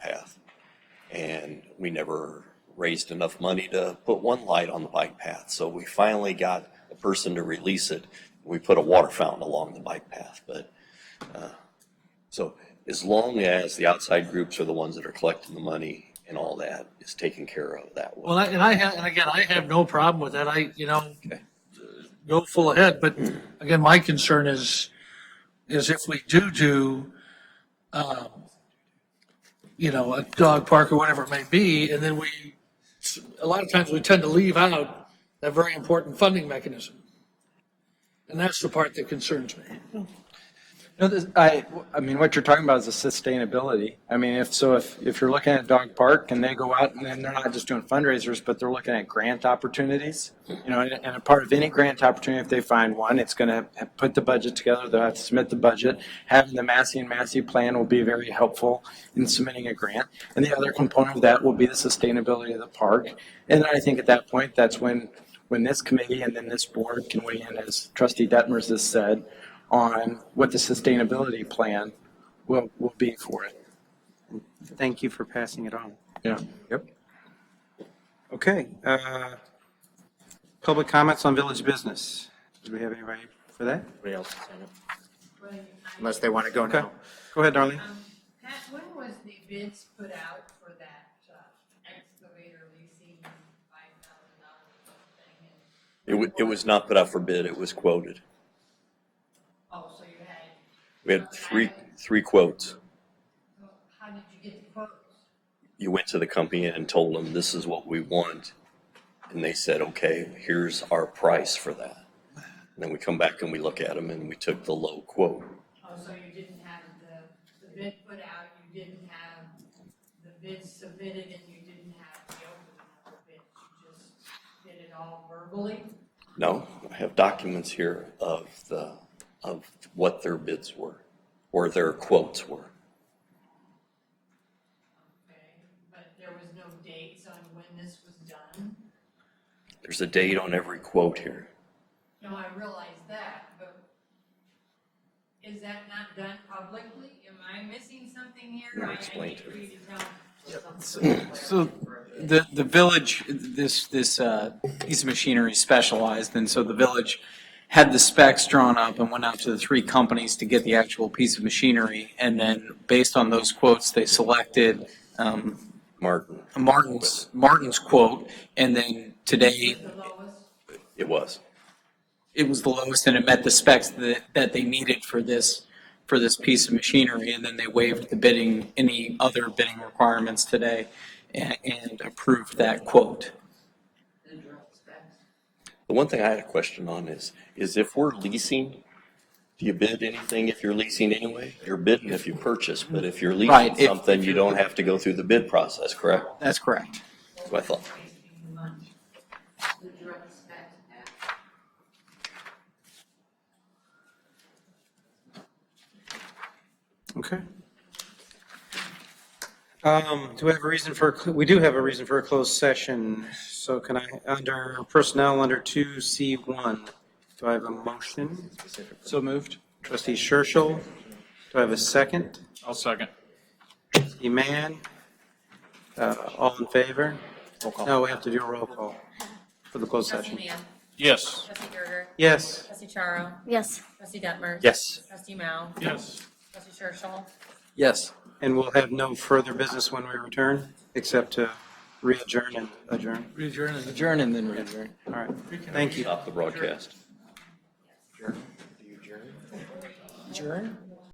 And we never raised enough money to put one light on the bike path. So we finally got a person to release it. We put a water fountain along the bike path, but, uh, so as long as the outside groups are the ones that are collecting the money and all that is taken care of that way. Well, I- and I, ha- and again, I have no problem with that. I, you know, Okay. go full ahead, but again, my concern is, is if we do do, um, you know, a dog park or whatever it may be, and then we, a lot of times we tend to leave out that very important funding mechanism. And that's the part that concerns me. No, this, I, I mean, what you're talking about is the sustainability. I mean, if, so if, if you're looking at Dog Park and they go out and then they're not just doing fundraisers, but they're looking at grant opportunities, you know, and, and a part of any grant opportunity, if they find one, it's going to put the budget together. They'll have to submit the budget. Having the Massey and Massey plan will be very helpful in submitting a grant. And the other component of that will be the sustainability of the park. And I think at that point, that's when, when this committee and then this board can weigh in, as trustee Detmers has said, on what the sustainability plan will, will be for it. Thank you for passing it on. Yeah. Yep. Okay. uh, Public comments on village business. Do we have anybody for that? Anybody else sign up? Right. Unless they want to go Okay. now. Go ahead, Darlene. Um, Pat, when was the bids put out for that uh, excavator leasing five thousand dollar thing? It And- was, it was not put out for bid, it was quoted. Oh, so you had, We had three, three quotes. so how did you get the quotes? You went to the company and told them, this is what we want. And they said, okay, here's our price for that. And then we come back and we look at them and we took the low quote. Oh, so you didn't have the, the bid put out, you didn't have the bids submitted, and you didn't have the opening of the bids. You just did it all verbally? No, I have documents here of the, of what their bids were, or their quotes were. Okay, but there was no dates on when this was done? There's a date on every quote here. No, I realize that, but is that not done publicly? Am I missing something here? No, I- I explain need to for her. you to tell me something. So the, the village, this, this uh, piece of machinery is specialized, and so the village had the specs drawn up and went out to the three companies to get the actual piece of machinery. And then based on those quotes, they selected um, Martin, Martin's, Martin's quote. And then today, The lowest, it was. it was the lowest and it met the specs that, that they needed for this, for this piece of machinery. And then they waived the bidding, any other bidding requirements today and, and approved that quote. the drill specs. The one thing I had a question on is, is if we're leasing, do you bid anything if you're leasing anyway? You're bidding if you purchase, but if you're leasing Right, if- something, you don't have to go through the bid process, correct? That's correct. That's what I thought. Wasting the money. The drill specs, that- Okay. Um, do we have a reason for, a cl- we do have a reason for a closed session. So can I, under personnel, under 2C1, do I have a motion? So moved. Trustee Churchill, do I have a second? I'll second. Trustee Mann, uh, all in favor? Roll call. No, we have to do a roll call for the closed Trustee session. Mann. Yes. Trustee Gerger. Yes. Trustee Charo. Yes. Trustee Detmers. Yes. Trustee Mao. Yes. Trustee Churchill. Yes. And we'll have no further business when we return, except to re-adjourn and adjourn. Adjourn and- Adjourn and then adjourn. All right, thank you. Stop the broadcast. Adjourn?